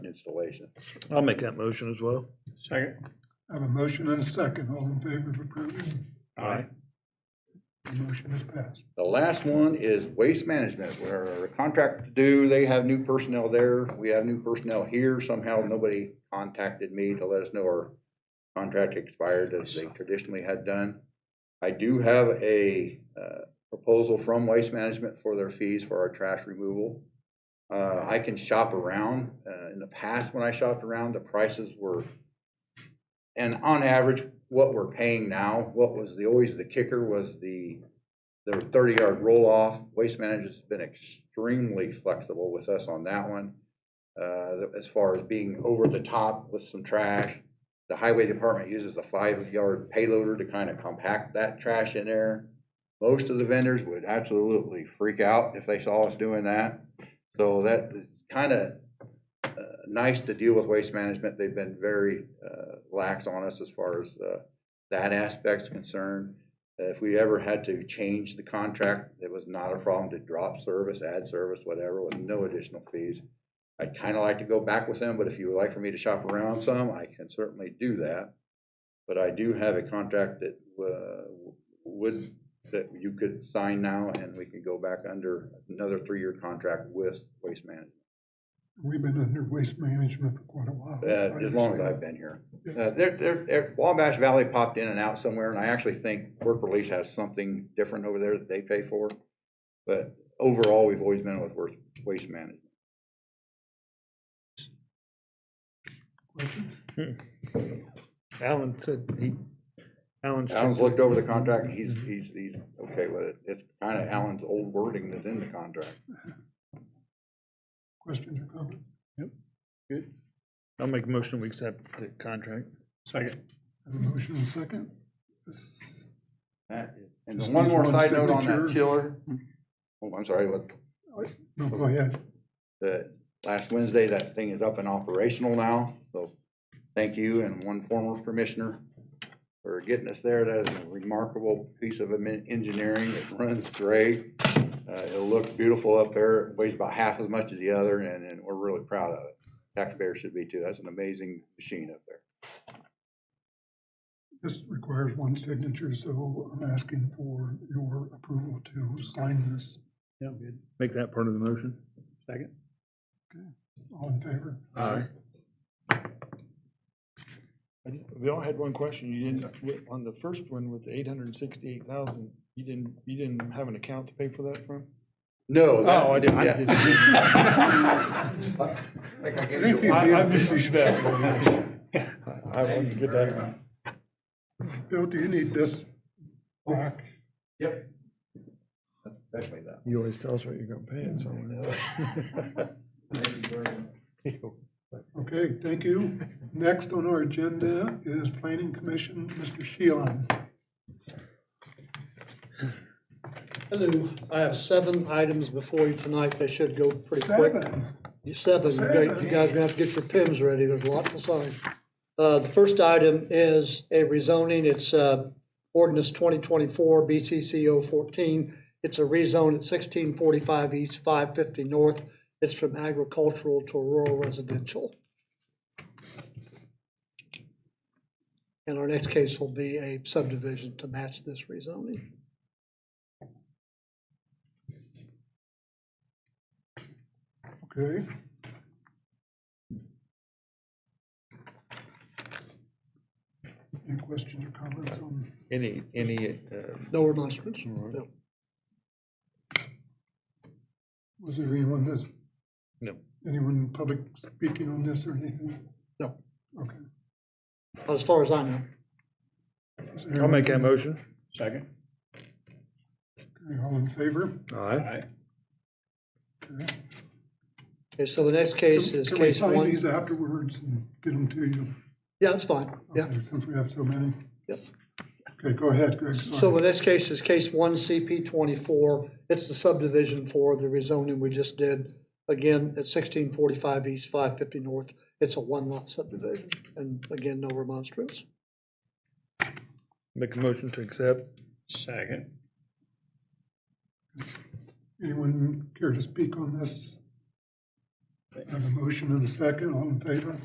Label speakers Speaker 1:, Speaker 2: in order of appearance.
Speaker 1: installation.
Speaker 2: I'll make that motion as well.
Speaker 3: Second.
Speaker 4: I have a motion and a second. All in favor of approving?
Speaker 3: Aye.
Speaker 4: The motion is passed.
Speaker 1: The last one is waste management, where our contract due, they have new personnel there, we have new personnel here. Somehow, nobody contacted me to let us know our contract expired as they traditionally had done. I do have a uh, proposal from Waste Management for their fees for our trash removal. Uh, I can shop around. Uh, In the past, when I shopped around, the prices were, and on average, what we're paying now, what was the, always the kicker was the their thirty yard roll off. Waste Management's been extremely flexible with us on that one. Uh, as far as being over the top with some trash. The highway department uses the five yard payloader to kind of compact that trash in there. Most of the vendors would absolutely freak out if they saw us doing that. So that is kind of nice to deal with Waste Management. They've been very uh, lax on us as far as uh, that aspect's concerned. Uh, If we ever had to change the contract, it was not a problem to drop service, add service, whatever, with no additional fees. I'd kind of like to go back with them, but if you would like for me to shop around some, I can certainly do that. But I do have a contract that uh, would, that you could sign now, and we could go back under another three-year contract with Waste Management,
Speaker 4: We've been under waste management for quite a while.
Speaker 1: uh, as long as I've been here. Uh, There, there- there, Wabash Valley popped in and out somewhere, and I actually think Work Release has something different over there that they pay for. But overall, we've always been with Work- Waste Management.
Speaker 4: Questions?
Speaker 2: Alan said he, Alan. said-
Speaker 1: Alan's looked over the contract, and he's, he's, he's okay with it. It's kind of Alan's old wording that's in the contract.
Speaker 4: Questions or comments?
Speaker 2: I'll make a motion, we accept the contract.
Speaker 3: Second.
Speaker 4: I have a motion and a second. This-
Speaker 1: And
Speaker 4: Just
Speaker 1: one
Speaker 4: needs
Speaker 1: more
Speaker 4: one
Speaker 1: side note on that
Speaker 4: signature.
Speaker 1: chiller. Oh, I'm sorry, what,
Speaker 4: No, go ahead.
Speaker 1: the, last Wednesday, that thing is up and operational now, so thank you and one former commissioner for getting us there. That is a remarkable piece of admin- engineering. It runs great. Uh, it'll look beautiful up there. It Weighs about half as much as the other, and, and we're really proud of it. Taxpayers should be too. That's an amazing machine up there.
Speaker 4: This requires one signature, so I'm asking for your approval to sign this.
Speaker 3: Yeah, good.
Speaker 2: Make that part of the motion.
Speaker 3: Second.
Speaker 4: All in favor?
Speaker 2: Aye. We all had one question. You didn't, with- on the first one with the eight hundred and sixty-eight thousand, you didn't, you didn't have an account to pay for that from?
Speaker 1: No. that-
Speaker 2: Oh, I did, I
Speaker 1: yeah.
Speaker 2: did.
Speaker 1: Like I gave you
Speaker 4: Thank you.
Speaker 1: a-
Speaker 2: I, I'm just respectful. I wanted to get that.
Speaker 4: Bill, do you need this back?
Speaker 1: Yep. Especially that.
Speaker 2: You always tell us what you're gonna pay it,
Speaker 1: Thank you very much.
Speaker 4: Okay, thank you. Next on our agenda is Planning Commission, Mr. Sheehan.
Speaker 5: Hello, I have seven items before you tonight, they should go pretty quick.
Speaker 4: Seven.
Speaker 5: You- Seven, you guys- you guys are gonna have to get your pins ready, there's a lot to sign. Uh, the first item is a rezoning, it's, uh, ordinance twenty twenty-four BCCO fourteen. It's a rezone at sixteen forty-five east, five fifty north, it's from agricultural to rural residential. And our next case will be a subdivision to match this rezoning.
Speaker 4: Okay. Any questions or comments on,
Speaker 2: Any, any, uh,
Speaker 5: No remonstrance,
Speaker 2: Alright.
Speaker 5: no.
Speaker 4: was there anyone that's?
Speaker 2: No.
Speaker 4: Anyone in public speaking on this or anything?
Speaker 5: No.
Speaker 4: Okay.
Speaker 5: Not as far as I know.
Speaker 4: Is there
Speaker 2: I'll make that motion.
Speaker 3: Second.
Speaker 4: anyone- All in favor?
Speaker 2: Aye.
Speaker 3: Aye.
Speaker 4: Okay.
Speaker 5: Okay, so the next case is
Speaker 4: Can we
Speaker 5: case
Speaker 4: sign
Speaker 5: one.
Speaker 4: these afterwards and get them to you?
Speaker 5: Yeah, that's fine, yeah.
Speaker 4: Okay, Since we have so many.
Speaker 5: Yep.
Speaker 4: Okay, go ahead, Greg,
Speaker 5: So the
Speaker 4: sorry.
Speaker 5: next case is case one CP twenty-four. It's the subdivision for the rezoning we just did. Again, at sixteen forty-five east, five fifty north. It's a one-lot subdivision, and again, no remonstrance.
Speaker 2: Make a motion to accept.
Speaker 3: Second.
Speaker 4: Anyone care to speak on this? I have a motion and a second, all in favor?